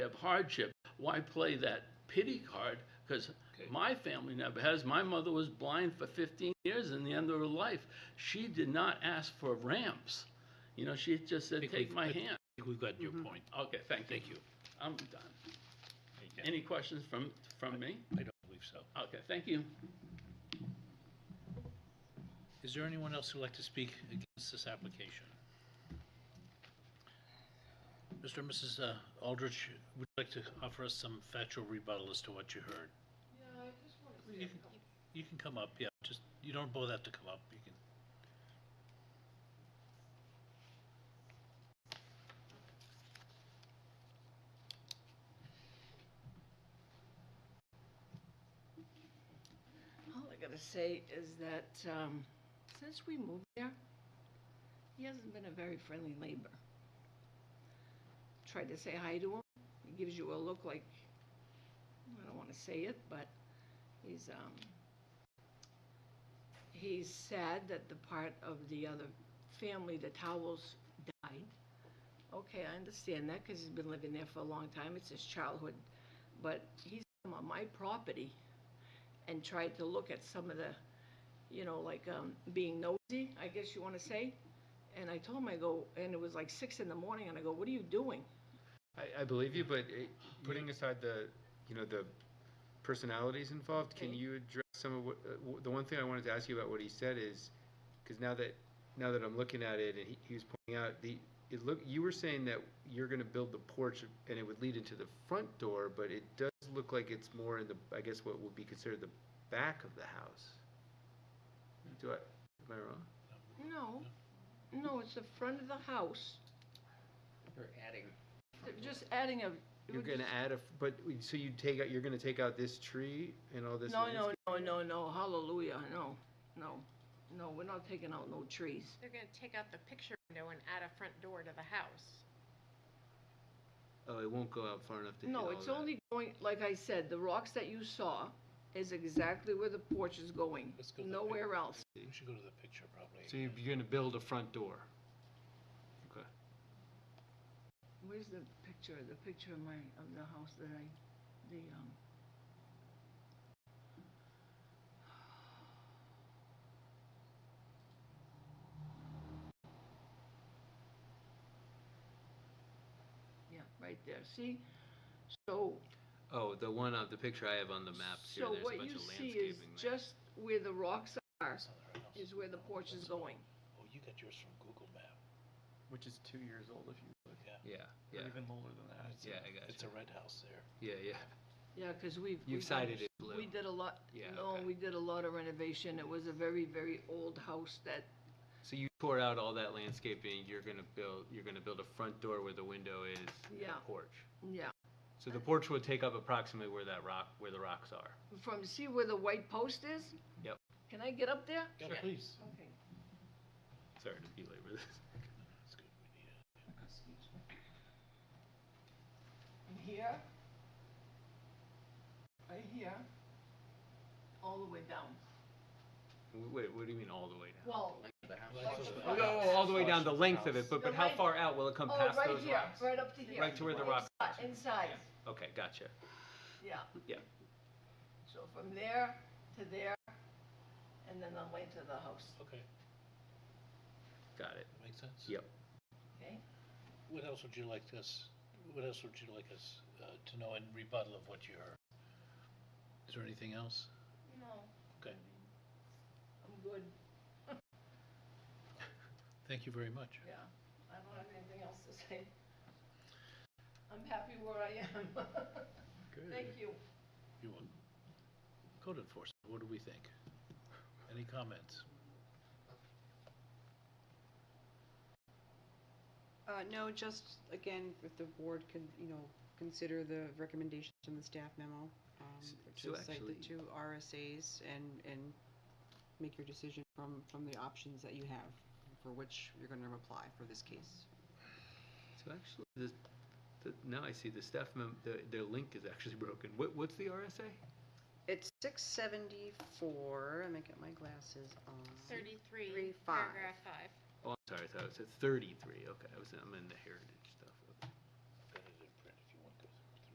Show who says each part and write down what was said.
Speaker 1: hardship, why play that pity card? Because
Speaker 2: Okay.
Speaker 1: my family never has. My mother was blind for 15 years and the end of her life. She did not ask for ramps. You know, she just said,
Speaker 2: think
Speaker 1: take
Speaker 2: we've-
Speaker 1: my
Speaker 2: I
Speaker 1: hand.
Speaker 2: think We've got
Speaker 3: Mm-hmm.
Speaker 2: your point.
Speaker 1: Okay, thank you.
Speaker 2: Thank you.
Speaker 1: I'm done.
Speaker 2: Yeah,
Speaker 1: Any questions from, from me?
Speaker 2: I don't believe so.
Speaker 1: Okay, thank you.
Speaker 2: Is there anyone else who'd like to speak against this application? Mr. and Mrs. uh, Aldrich, would you like to offer us some factual rebuttal as to what you heard? Yeah, I just want to. You can come up, yeah, just, you don't both have to come up, you can.
Speaker 3: All I gotta say is that, um, since we moved there, he hasn't been a very friendly neighbor. Tried to say hi to him, he gives you a look like, I don't wanna say it, but he's, um, he's sad that the part of the other family, the Towels, died. Okay, I understand that, cause he's been living there for a long time, it's his childhood, but he's come on my property and tried to look at some of the, you know, like um, being nosy, I guess you want to say. And I told him, I go, and it was like six in the morning, and I go, what are you doing?
Speaker 4: I, I believe you, but it, putting aside the, you know, the personalities involved, can
Speaker 3: Okay.
Speaker 4: you address some of what, uh, w- the one thing I wanted to ask you about what he said is, because now that, now that I'm looking at it and he, he was pointing out the, it look, you were saying that you're gonna build the porch and it would lead into the front door, but it does look like it's more in the, I guess what would be considered the back of the house. Do I, am I wrong?
Speaker 3: No, no, it's the front of the house.
Speaker 5: You're adding.
Speaker 3: They're Just adding a. it
Speaker 4: You're
Speaker 3: would
Speaker 4: gonna
Speaker 3: just-
Speaker 4: add a, f- but, so you take out, you're gonna take out this tree and all this?
Speaker 3: No,
Speaker 4: landscape?
Speaker 3: no, no, no, no, hallelujah, no, no, no, we're not taking out no trees.
Speaker 6: They're gonna take out the picture window and add a front door to the house.
Speaker 4: Oh, it won't go out far enough to hit all
Speaker 3: No, it's
Speaker 4: that.
Speaker 3: only going, like I said, the rocks that you saw is exactly where the porch is going,
Speaker 2: Let's go to the pic-
Speaker 3: nowhere else.
Speaker 2: We should go to the picture probably.
Speaker 4: So you're, you're gonna build a front door. Okay.
Speaker 3: Where's the picture, the picture of my, of the house that I, the, um. Yeah, right there, see? So,
Speaker 4: Oh, the one on the picture I have on the maps here.
Speaker 3: so
Speaker 4: There's a
Speaker 3: what
Speaker 4: bunch
Speaker 3: you
Speaker 4: of
Speaker 3: see is
Speaker 4: landscaping there.
Speaker 3: just where the rocks are,
Speaker 2: That's not the right house.
Speaker 3: is where the porch is going.
Speaker 2: Oh, you got yours from Google Map.
Speaker 5: Which is two years old if you look.
Speaker 4: yeah, yeah,
Speaker 5: Or even older than that.
Speaker 4: yeah. I got
Speaker 2: It's a red house there.
Speaker 4: you. Yeah, yeah.
Speaker 3: Yeah, because we've.
Speaker 4: You've
Speaker 3: we've done-
Speaker 4: cited it blue.
Speaker 3: We did a lot,
Speaker 4: Yeah,
Speaker 3: no,
Speaker 4: okay.
Speaker 3: we did a lot of renovation. It was a very, very old house that
Speaker 4: So you tore out all that landscaping. You're gonna build. You're gonna build a front door where the window is. and a
Speaker 3: Yeah.
Speaker 4: Porch.
Speaker 3: Yeah,
Speaker 4: So the porch would take up approximately where that rock, where the rocks are.
Speaker 3: from, see where the white post is?
Speaker 4: Yep.
Speaker 3: Can I get up there?
Speaker 2: Yeah, please.
Speaker 3: Okay.
Speaker 4: Sorry to belabor this.
Speaker 2: That's good. We need it.
Speaker 3: And here? Right here? All the way down.
Speaker 4: W- Wait, what do you mean all the way down?
Speaker 3: Well,
Speaker 4: Oh, no, all the way down the length of it, but but
Speaker 3: The
Speaker 4: how
Speaker 3: length-
Speaker 4: far out will it come
Speaker 3: oh,
Speaker 4: past
Speaker 3: right
Speaker 4: those
Speaker 3: here,
Speaker 4: rocks?
Speaker 3: right up to here.
Speaker 4: Right to where the rocks
Speaker 3: Inside- Inside,
Speaker 4: Okay, gotcha.
Speaker 3: yeah.
Speaker 4: Yeah.
Speaker 3: So from there to there, and then the length of the house,
Speaker 2: Okay,
Speaker 4: Got it.
Speaker 2: that makes sense?
Speaker 4: Yep.
Speaker 3: okay?
Speaker 2: What else would you like us, what else would you like us uh, to know in rebuttal of what you heard? Is there anything else?
Speaker 3: No,
Speaker 2: Okay,
Speaker 3: I'm good,
Speaker 2: thank you very much.
Speaker 3: yeah. I don't have anything else to say. I'm happy where I am. Thank you.
Speaker 2: You want code enforcement, what do we think? Any comments?
Speaker 7: Uh, no, just, again, if the board can, you know, consider the recommendations in the staff memo, um,
Speaker 4: S-
Speaker 7: which
Speaker 4: so
Speaker 7: is like
Speaker 4: actually-
Speaker 7: the two RSAs and, and make your decision from, from the options that you have for which you're gonna apply for this case.
Speaker 4: So actually, the, the, now I see the staff mem, the, their link is actually broken. What, what's the RSA?
Speaker 7: It's six seventy-four, let me get my glasses on.
Speaker 6: Thirty-three,
Speaker 7: Three, five.
Speaker 6: paragraph five.
Speaker 4: Oh, I'm sorry, I thought it said thirty-three. Okay, I was, I'm in the heritage